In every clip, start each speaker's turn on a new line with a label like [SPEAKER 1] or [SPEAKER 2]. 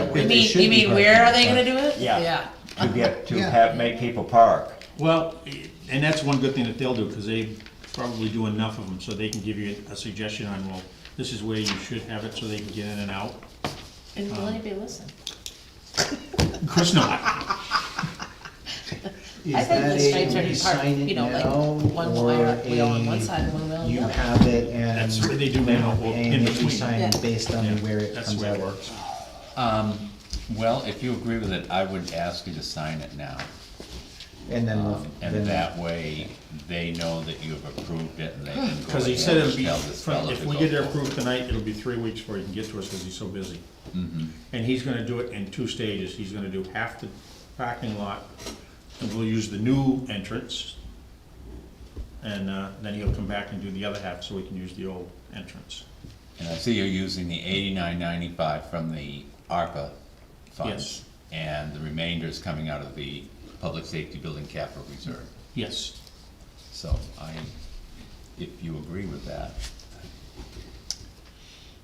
[SPEAKER 1] like where
[SPEAKER 2] You
[SPEAKER 1] they
[SPEAKER 2] mean,
[SPEAKER 1] should
[SPEAKER 2] you
[SPEAKER 1] be
[SPEAKER 2] mean, where are they
[SPEAKER 1] parking.
[SPEAKER 2] gonna do it?
[SPEAKER 3] Yeah.
[SPEAKER 2] Yeah.
[SPEAKER 3] to get, to
[SPEAKER 1] Yeah.
[SPEAKER 3] have, make people park.
[SPEAKER 4] Well, and that's one good thing that they'll do, because they probably do enough of them, so they can give you a suggestion on, well, this is where you should have it, so they can get in and out.
[SPEAKER 2] And will anybody listen?
[SPEAKER 4] Of course not.
[SPEAKER 1] Is
[SPEAKER 2] I think
[SPEAKER 1] that
[SPEAKER 2] the
[SPEAKER 1] a-
[SPEAKER 2] stripes are
[SPEAKER 1] you
[SPEAKER 2] apart,
[SPEAKER 1] sign it
[SPEAKER 2] you know, like
[SPEAKER 1] now,
[SPEAKER 2] one wire,
[SPEAKER 1] or
[SPEAKER 2] wheel on
[SPEAKER 1] a-
[SPEAKER 2] one side, one wheel on the
[SPEAKER 1] You
[SPEAKER 2] other?
[SPEAKER 1] have it and.
[SPEAKER 4] That's what they do now, or
[SPEAKER 1] and
[SPEAKER 4] in
[SPEAKER 1] if you
[SPEAKER 4] between.
[SPEAKER 1] sign
[SPEAKER 2] Yeah.
[SPEAKER 1] based on
[SPEAKER 4] Yeah,
[SPEAKER 1] where it
[SPEAKER 4] That's
[SPEAKER 1] comes
[SPEAKER 4] the way
[SPEAKER 1] out.
[SPEAKER 4] it
[SPEAKER 1] of.
[SPEAKER 4] works.
[SPEAKER 5] Um, well, if you agree with it, I would ask you to sign it now.
[SPEAKER 1] And
[SPEAKER 4] Um,
[SPEAKER 1] then, we'll- then
[SPEAKER 5] And that way, they know that you've approved it and they can go ahead
[SPEAKER 4] Because he said it'll
[SPEAKER 5] and
[SPEAKER 4] be,
[SPEAKER 5] tell this fella
[SPEAKER 4] if
[SPEAKER 5] to
[SPEAKER 4] we
[SPEAKER 5] go
[SPEAKER 4] get it
[SPEAKER 5] forward.
[SPEAKER 4] approved tonight, it'll be three weeks before he can get to us, because he's so busy. And he's gonna do it in two stages, he's gonna do half the parking lot, and we'll use the new entrance. And, uh, then he'll come back and do the other half, so we can use the old entrance.
[SPEAKER 5] And I see you're using the eighty-nine ninety-five from the ARPA
[SPEAKER 4] Yes.
[SPEAKER 5] funds. And the remainder is coming out of the Public Safety Building Capital Reserve.
[SPEAKER 4] Yes.
[SPEAKER 5] So I, if you agree with that,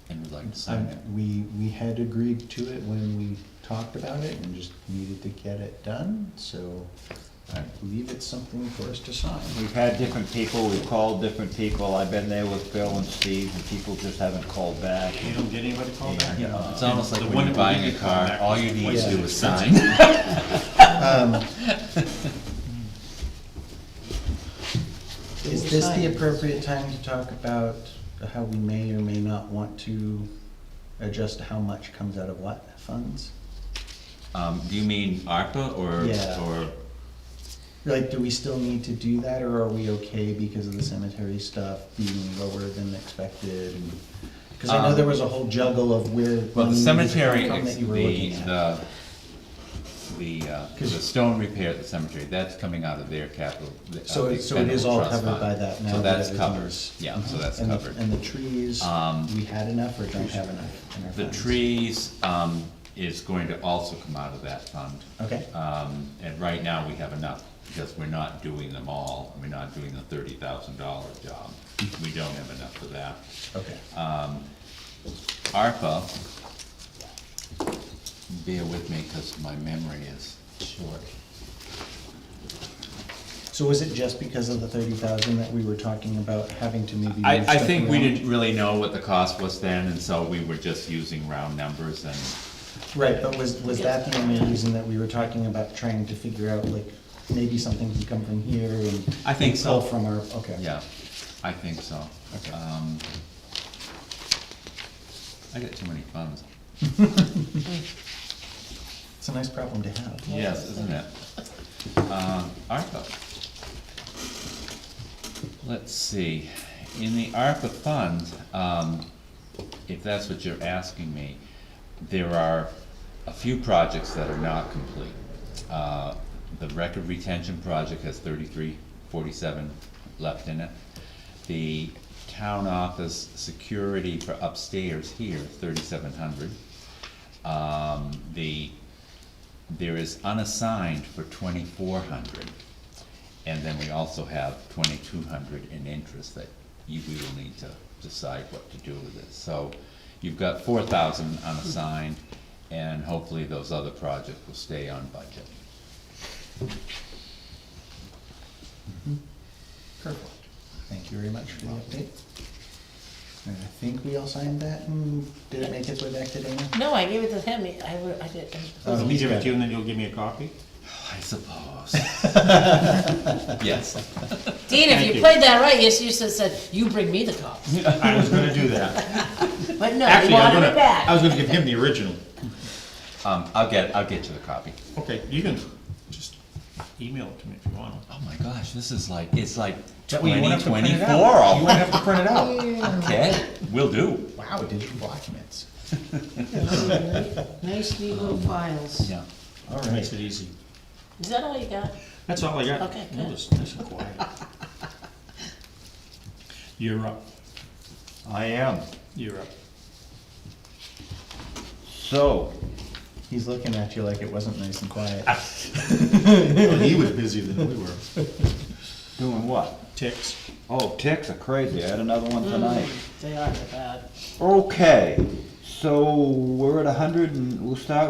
[SPEAKER 5] and would like to sign it.
[SPEAKER 1] Um, we, we had agreed to it when we talked about it and just needed to get it done, so I believe it's something for us to sign.
[SPEAKER 3] We've had different people, we've called different people, I've been there with Bill and Steve, and people just haven't called back.
[SPEAKER 4] You don't get anybody to call back?
[SPEAKER 1] Um,
[SPEAKER 3] Yeah.
[SPEAKER 5] It's almost like
[SPEAKER 4] uh, The
[SPEAKER 5] when
[SPEAKER 4] one
[SPEAKER 5] you're
[SPEAKER 4] that we
[SPEAKER 5] buying
[SPEAKER 4] did
[SPEAKER 5] a
[SPEAKER 4] call
[SPEAKER 5] car,
[SPEAKER 4] back
[SPEAKER 5] all
[SPEAKER 4] was
[SPEAKER 5] you need to
[SPEAKER 4] twice
[SPEAKER 5] do
[SPEAKER 4] as
[SPEAKER 5] is sign.
[SPEAKER 1] Is this the appropriate time to talk about how we may or may not want to adjust how much comes out of what funds?
[SPEAKER 5] Um, do you mean ARPA or,
[SPEAKER 1] Yeah.
[SPEAKER 5] or,
[SPEAKER 1] Like, do we still need to do that, or are we okay because of the cemetery stuff being lower than expected? Because I know there was a whole juggle of where.
[SPEAKER 5] well,
[SPEAKER 1] money
[SPEAKER 5] the
[SPEAKER 1] was
[SPEAKER 5] cemetery,
[SPEAKER 1] from
[SPEAKER 5] ex-
[SPEAKER 1] that you
[SPEAKER 5] the,
[SPEAKER 1] Mm. were looking at.
[SPEAKER 5] the, the, uh, the
[SPEAKER 1] 'Cause-
[SPEAKER 5] stone repair at the cemetery, that's coming out of their capital. the- of
[SPEAKER 1] So
[SPEAKER 5] the
[SPEAKER 1] it, so it is
[SPEAKER 5] expendable
[SPEAKER 1] all
[SPEAKER 5] trust
[SPEAKER 1] covered
[SPEAKER 5] fund.
[SPEAKER 1] by that now.
[SPEAKER 5] So
[SPEAKER 1] that
[SPEAKER 5] that's
[SPEAKER 1] everything
[SPEAKER 5] covered,
[SPEAKER 1] is- Mm-hmm.
[SPEAKER 5] yeah, so that's
[SPEAKER 1] And the-
[SPEAKER 5] covered.
[SPEAKER 1] And the trees,
[SPEAKER 5] Um,
[SPEAKER 1] we had enough or don't have enough in our
[SPEAKER 5] The
[SPEAKER 1] funds?
[SPEAKER 5] trees, um, is going to also come out of that fund.
[SPEAKER 1] Okay,
[SPEAKER 5] Um, and right now, we have enough, because we're not doing them all, we're not doing the thirty thousand dollar job.
[SPEAKER 1] Mm-hmm.
[SPEAKER 5] We don't have enough for that.
[SPEAKER 1] okay.
[SPEAKER 5] ARPA, bear with me, cause my memory is short.
[SPEAKER 1] So was it just because of the thirty thousand that we were talking about having to maybe?
[SPEAKER 5] I,
[SPEAKER 1] move
[SPEAKER 5] I
[SPEAKER 1] stuff
[SPEAKER 5] think we
[SPEAKER 1] around?
[SPEAKER 5] didn't really know what the cost was then, and so we were just using round numbers and,
[SPEAKER 1] Right, but was, was that the only reason that we were talking about trying to figure out, like, maybe something can come from here and.
[SPEAKER 5] I think so.
[SPEAKER 1] pull From our, okay.
[SPEAKER 5] yeah, I think so.
[SPEAKER 1] Okay.
[SPEAKER 5] Um, I got too many funds.
[SPEAKER 1] It's a nice problem to have.
[SPEAKER 5] Yes, isn't it? Um, ARPA. Let's see, in the ARPA fund, um, if that's what you're asking me, there are a few projects that are not complete. Uh, the record retention project has thirty-three forty-seven left in it. The town office security for upstairs here, thirty-seven hundred. Um, the there is unassigned for twenty-four hundred. And then we also have twenty-two hundred in interest that you, we will need to decide what to do with it. So you've got four thousand unassigned, and hopefully those other projects will stay on budget.
[SPEAKER 1] Perfect. Thank you very much for the update. And I think we all signed that, and did it make its way back to Dana?
[SPEAKER 2] No, I gave it to him, I, wa- I did,
[SPEAKER 1] Oh,
[SPEAKER 4] Let me
[SPEAKER 1] he's
[SPEAKER 4] give it
[SPEAKER 1] got
[SPEAKER 4] to you, and then you'll give me a copy?
[SPEAKER 5] I suppose. Yes,
[SPEAKER 2] Dean,
[SPEAKER 4] Thank
[SPEAKER 2] if
[SPEAKER 4] you.
[SPEAKER 2] you played that right, you should have said, you bring me the cops,
[SPEAKER 4] I was gonna do that.
[SPEAKER 2] but no, you
[SPEAKER 4] Actually, I was
[SPEAKER 2] wanted it
[SPEAKER 4] gonna, I
[SPEAKER 2] back.
[SPEAKER 4] was gonna give him the original.
[SPEAKER 5] um, I'll get, I'll get you the copy.
[SPEAKER 4] Okay, you can just email it to me if you want.
[SPEAKER 5] Oh my gosh, this is like, it's like
[SPEAKER 3] That way you won't
[SPEAKER 5] twenty
[SPEAKER 3] have to print it
[SPEAKER 5] twenty-four
[SPEAKER 3] out. You
[SPEAKER 5] already.
[SPEAKER 3] won't have to print it out.
[SPEAKER 5] Okay, will do,
[SPEAKER 1] Wow, digital documents.
[SPEAKER 6] Nice neat little files.
[SPEAKER 5] yeah.
[SPEAKER 1] All
[SPEAKER 4] Makes
[SPEAKER 1] right.
[SPEAKER 4] it easy.
[SPEAKER 2] Is that all you got?
[SPEAKER 4] That's all I got.
[SPEAKER 2] Okay,
[SPEAKER 4] It
[SPEAKER 2] good.
[SPEAKER 4] was nice and quiet. You're up,
[SPEAKER 3] I am,
[SPEAKER 4] you're up.
[SPEAKER 3] so,
[SPEAKER 1] He's looking at you like it wasn't nice and quiet.
[SPEAKER 4] he was busier than we were.
[SPEAKER 3] doing what?
[SPEAKER 4] Ticks.
[SPEAKER 3] Oh, ticks are crazy, I had another one tonight.
[SPEAKER 2] They are, they're bad.
[SPEAKER 3] Okay, so we're at a hundred and, we'll start